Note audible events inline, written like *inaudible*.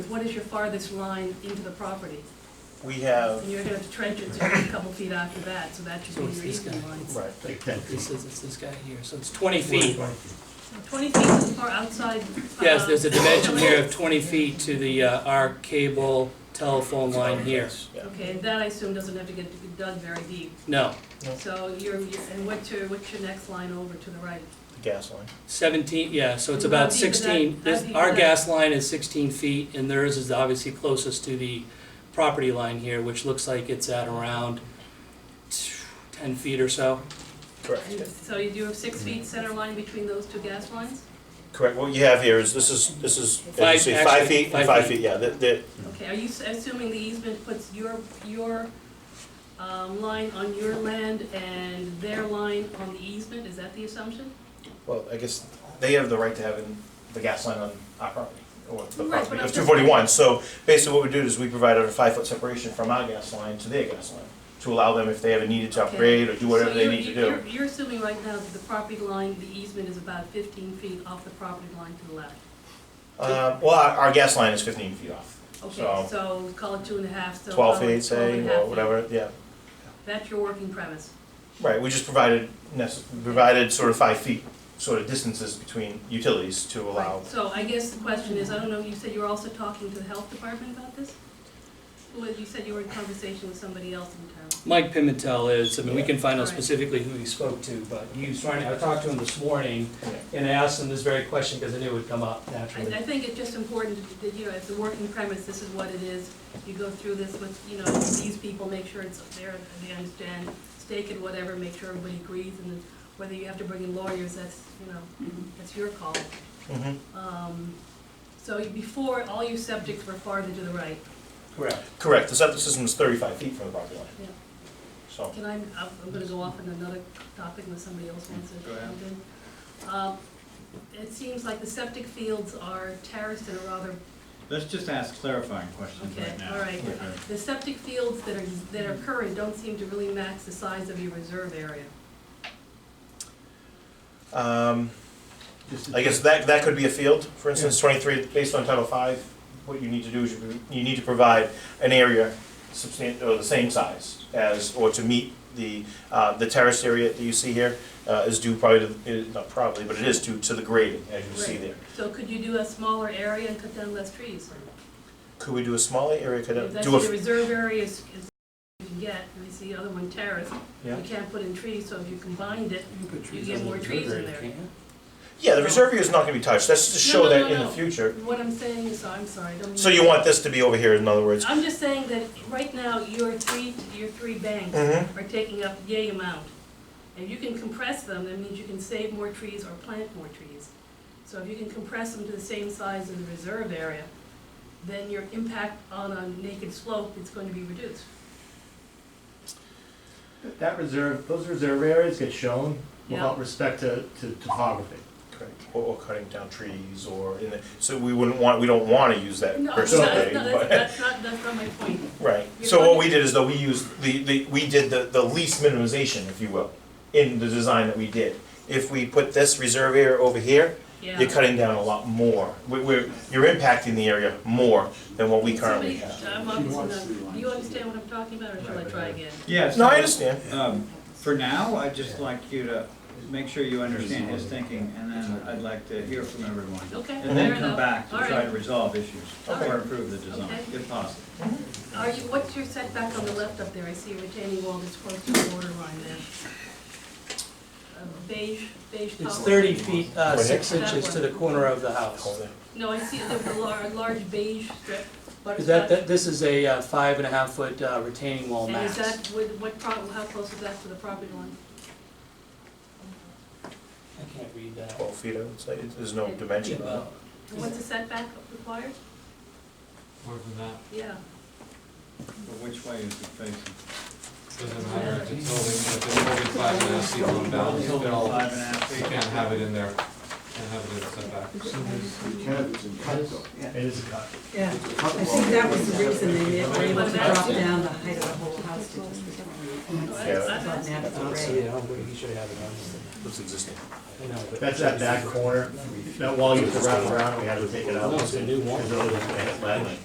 What is your farthest line into the property? We have, And you're gonna have to trench it so it's a couple feet after that, so that should So be it's your this guy. easement line. right, This is, it's this guy here, so it's twenty feet. Twenty feet is far outside. Yes, uh, there's a dimension *laughs* here of twenty feet to the, uh, our cable telephone line here. yeah. Okay, and that I assume doesn't have to get dug very deep. No, So you're, you're- and what's your, what's your next line over to the right? The gas line. seventeen, yeah, so it's And how about deep is that? sixteen, How this, deep our is that? gas line is sixteen feet, and theirs is obviously closest to the property line here, which looks like it's at around t- ten feet or so. Correct. And yeah. So you do have six feet center line between those two gas lines? Correct, what you have here is, this is, this is, as you Five- see, five actually, feet, five five feet. feet, yeah, the, the, Okay, are you s- assuming the easement puts your, your um, line on your land and their line on the easement? Is that the assumption? well, I guess they have the right to have in the gas line on our property, or the Right, but I'm property of just- two forty-one, so basically what we do is we provide a five-foot separation from our gas line to their gas line, to allow them if they ever needed to Okay. upgrade or do whatever So they you're- need to you're- do. You're assuming right now that the property line, the easement is about fifteen feet off the property line to the left. Uh, well, our, our gas line is fifteen feet off, Okay, So- so call it two and a half, so. twelve call it feet, 12 say, and a half or feet. whatever, yeah. That's your working premise. Right, we just provided, necess- provided sort of five feet, sort of distances between utilities to allow. Right, So I guess the question is, I don't know, you said you were also talking to the health department about this? Well, you said you were in conversation with somebody else in town. Mike Pimentel is, I mean, we can find out Right. specifically who he spoke to, but he was trying, I talked to him this morning Yeah. and I asked him this very question because I knew it would come up I, naturally. I think it's just important that, you know, it's a working premise, this is what it is. You go through this with, you know, these people, make sure it's there, they understand, stake it, whatever, make sure everybody agrees, and then whether you have to bring in lawyers, that's, you know, that's your call. Mhm. Um, so before, all your subjects were farther to the right. Correct. Correct, the septic system is thirty-five feet from the property line, Yeah. so. Can I, I'm- I'm gonna go off on another topic unless somebody else wants to. Go ahead. jump in. Um, It seems like the septic fields are terraced in a rather, Let's just ask clarifying questions okay, right now. all right. Yeah. The septic fields that are, that are current don't seem to really match the size of your reserve area. Um, Just- I guess that, that could be a field, for instance, twenty-three, based on Title Five, what you need to do is you, you need to provide an area substan, or the same size as, or to meet the, uh, the terraced area that you see here, uh, is due probably to, is- not probably, but it is due to the grading, as you see Right. there. So could you do a smaller area and cut down less trees? Could we do a smaller area, could If I that's do a? the reserve area is, is you can get, and I see the other one terraced, Yeah. you can't put in trees, so if you combined it, You put trees get on more the trees in reservoir, there. Yeah, the reserve area is not gonna be touched, that's to No, show no, that no, in the no. future. what I'm saying is, I'm sorry, I don't mean. So you want this to be over here, in other words? I'm just saying that right now, your three, your three banks Mhm. are taking up yay amount. And you can compress them, that means you can save more trees or plant more trees. So if you can compress them to the same size as the reserve area, then your impact on a naked slope is going to be reduced. That reserve, those reserve areas get shown Yeah. without respect to, to topography. Correct. Or, or cutting down trees, or, in the, so we wouldn't want, we don't wanna use Uh, that No, per that's not, se, no, but- that's, *laughs* that's not, that's not my point. right. You're So what going- we did is though, we used the, the, we did the, the least minimization, if you will, in the design that we did. If we put this reserve area over here, you're Yeah. cutting down a lot more, we, we're, you're impacting the area more than what we currently Somebody, have. I'm obviously not, do you understand what I'm talking about, or shall I try again? Yeah. No, I so, understand, um, For now, I'd just like you to make sure you understand his thinking, and then I'd like to hear from everyone. Okay, And then fair come enough. back to All try right. to resolve issues Okay. or improve the design, Okay. if possible. Are you, what's your setback on the left up there? I see a retaining wall that's close to the border line there. Uh, Beige, beige color. It's thirty feet, uh, Right here? six inches to the corner of the Hold house. it. No, I see the the lar- large beige strip. Is that, butterscotch. that, this is a uh, five and a half foot uh, retaining wall And is max. that, with- what, pro- how close is that to the property line? I can't read that. twelve feet, I would say, there's no Yeah, dimension on it. about- And What's the setback required? More than that, Yeah. But which way is it facing? doesn't matter, if it's only, if it's only five and a half feet on balance, Five and they'll, a you half feet. can't have it in there, can't have it in the setback. It is a cut. Yeah, I think that was the reason they didn't- were able to drop down the height of the whole house to just return. Oh, that's- that's- Not natural Honestly, array. I don't think he should have it on. It's existing. I know, but- That's that back corner, that wall used to wrap around, we had to take it out. No, it's a new wall. Because otherwise it hit lead.